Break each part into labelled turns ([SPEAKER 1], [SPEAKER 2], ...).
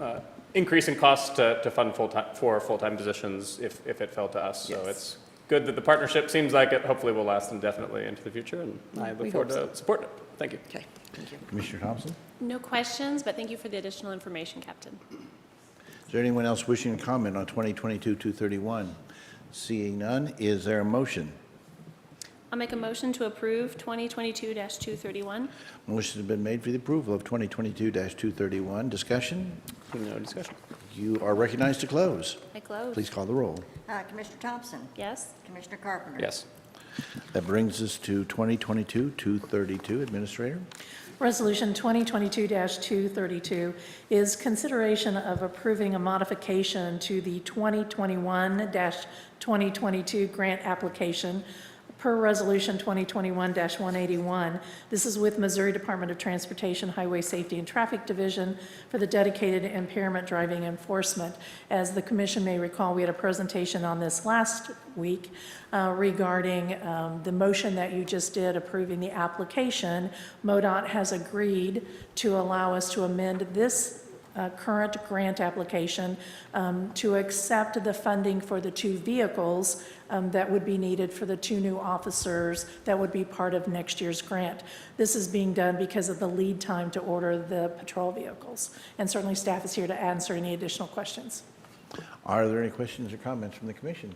[SPEAKER 1] uh, increase in costs to, to fund full-time, for full-time positions if, if it fell to us. So
[SPEAKER 2] Yes.
[SPEAKER 1] it's good that the partnership seems like it hopefully will last indefinitely into the future, and I
[SPEAKER 2] We
[SPEAKER 1] look forward
[SPEAKER 2] hope
[SPEAKER 1] to supporting it. Thank you.
[SPEAKER 2] Okay, thank you.
[SPEAKER 3] Commissioner Thompson?
[SPEAKER 4] No questions, but thank you for the additional information, Captain.
[SPEAKER 3] Is there anyone else wishing to comment on 2022-231? Seeing none, is there a motion?
[SPEAKER 4] I'll make a motion to approve 2022-231.
[SPEAKER 3] Motion has been made for the approval of 2022-231. Discussion?
[SPEAKER 1] No discussion.
[SPEAKER 3] You are recognized to close.
[SPEAKER 4] I close.
[SPEAKER 3] Please call the roll.
[SPEAKER 2] Uh, Commissioner Thompson?
[SPEAKER 4] Yes?
[SPEAKER 2] Commissioner Carpenter?
[SPEAKER 1] Yes.
[SPEAKER 3] That brings us to 2022-232. Administrator?
[SPEAKER 5] Resolution 2022-232 is consideration of approving a modification to the 2021-2022 grant application per Resolution 2021-181. This is with Missouri Department of Transportation Highway Safety and Traffic Division for the dedicated impairment driving enforcement. As the commission may recall, we had a presentation on this last week uh, regarding um, the motion that you just did approving the application. MoDOT has agreed to allow us to amend this uh, current grant application um, to accept the funding for the two vehicles um, that would be needed for the two new officers that would be part of next year's grant. This is being done because of the lead time to order the patrol vehicles. And certainly, staff is here to answer any additional questions.
[SPEAKER 3] Are there any questions or comments from the commission?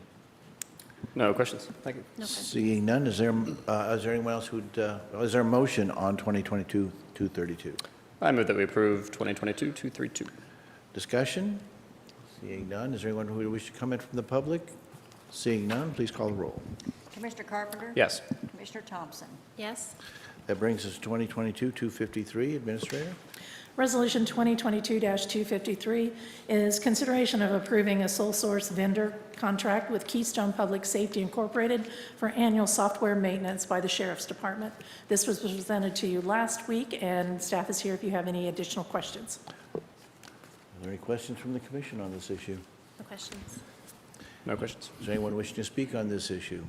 [SPEAKER 1] No questions. Thank you.
[SPEAKER 4] No questions.
[SPEAKER 3] Seeing none, is there, uh, is there anyone else who'd, uh, is there a motion on 2022-232?
[SPEAKER 1] I move that we approve 2022-232.
[SPEAKER 3] Discussion? Seeing none, is there anyone who would wish to comment from the public? Seeing none, please call the roll.
[SPEAKER 2] Commissioner Carpenter?
[SPEAKER 1] Yes.
[SPEAKER 2] Commissioner Thompson?
[SPEAKER 4] Yes?
[SPEAKER 3] That brings us to 2022-253. Administrator?
[SPEAKER 5] Resolution 2022-253 is consideration of approving a sole source vendor contract with Keystone Public Safety Incorporated for annual software maintenance by the Sheriff's Department. This was presented to you last week, and staff is here if you have any additional questions.
[SPEAKER 3] Are there any questions from the commission on this issue?
[SPEAKER 4] No questions.
[SPEAKER 1] No questions.
[SPEAKER 3] Is there anyone wishing to speak on this issue?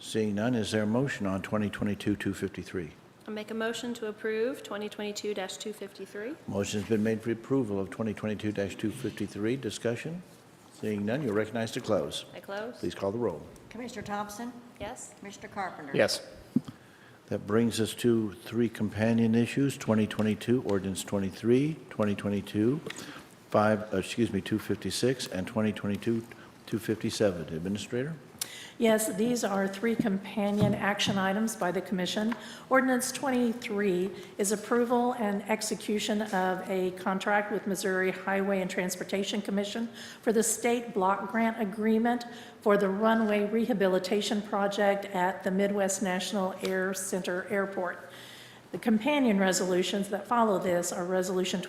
[SPEAKER 3] Seeing none, is there a motion on 2022-253?
[SPEAKER 4] I'll make a motion to approve 2022-253.
[SPEAKER 3] Motion's been made for approval of 2022-253. Discussion? Seeing none, you're recognized to close.
[SPEAKER 4] I close.
[SPEAKER 3] Please call the roll.
[SPEAKER 2] Commissioner Thompson?
[SPEAKER 4] Yes?
[SPEAKER 2] Commissioner Carpenter?
[SPEAKER 1] Yes.
[SPEAKER 3] That brings us to three companion issues, 2022 ordinance 23, 2022 5, uh, excuse me, 256, and 2022 257. Administrator?
[SPEAKER 5] Yes, these are three companion action items by the commission. Ordinance 23 is approval and execution of a contract with Missouri Highway and Transportation Commission for the state block grant agreement for the runway rehabilitation project at the Midwest National Air Center Airport. The companion resolutions that follow this are Resolution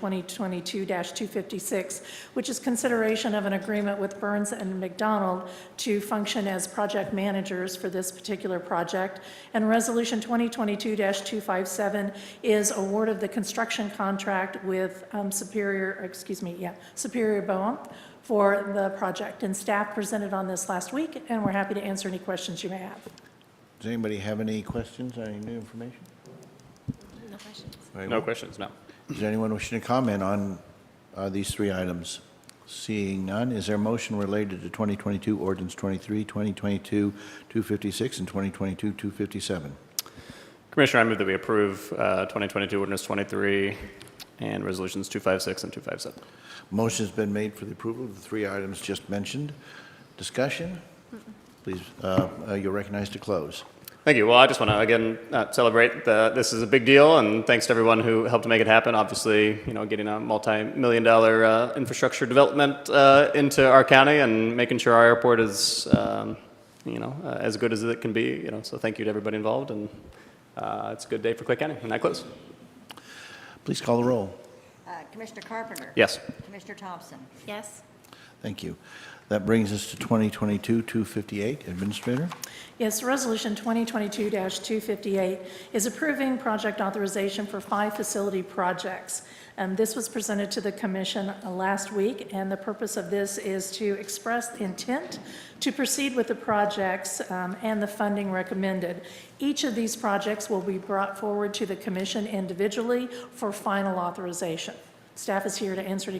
[SPEAKER 5] 2022-256, which is consideration of an agreement with Burns and McDonald to function as project managers for this particular project. And Resolution 2022-257 is award of the construction contract with um, Superior, excuse me, yeah, Superior Boehm for the project. And staff presented on this last week, and we're happy to answer any questions you may have.
[SPEAKER 3] Does anybody have any questions or any new information?
[SPEAKER 4] No questions.
[SPEAKER 3] Very
[SPEAKER 1] No
[SPEAKER 3] well.
[SPEAKER 1] questions, no.
[SPEAKER 3] Is there anyone wishing to comment on uh, these three items? Seeing none, is there a motion related to 2022 ordinance 23, 2022 256, and 2022 257?
[SPEAKER 1] Commissioner, I move that we approve uh, 2022 ordinance 23 and resolutions 256 and 257.
[SPEAKER 3] Motion's been made for the approval of the three items just mentioned. Discussion? Please, uh, uh, you're recognized to close.
[SPEAKER 1] Thank you. Well, I just want to again uh, celebrate that this is a big deal, and thanks to everyone who helped make it happen. Obviously, you know, getting a multi-million-dollar uh, infrastructure development uh, into our county and making sure our airport is, um, you know, uh, as good as it can be. You know, so thank you to everybody involved, and uh, it's a good day for Clay County. And I close.
[SPEAKER 3] Please call the roll.
[SPEAKER 2] Uh, Commissioner Carpenter?
[SPEAKER 1] Yes.
[SPEAKER 2] Commissioner Thompson?
[SPEAKER 4] Yes?
[SPEAKER 3] Thank you. That brings us to 2022 258. Administrator?
[SPEAKER 5] Yes, Resolution 2022-258 is approving project authorization for five facility projects. Um, This was presented to the commission uh, last week, and the purpose of this is to express intent to proceed with the projects um, and the funding recommended. Each of these projects will be brought forward to the commission individually for final authorization. Staff is here to answer any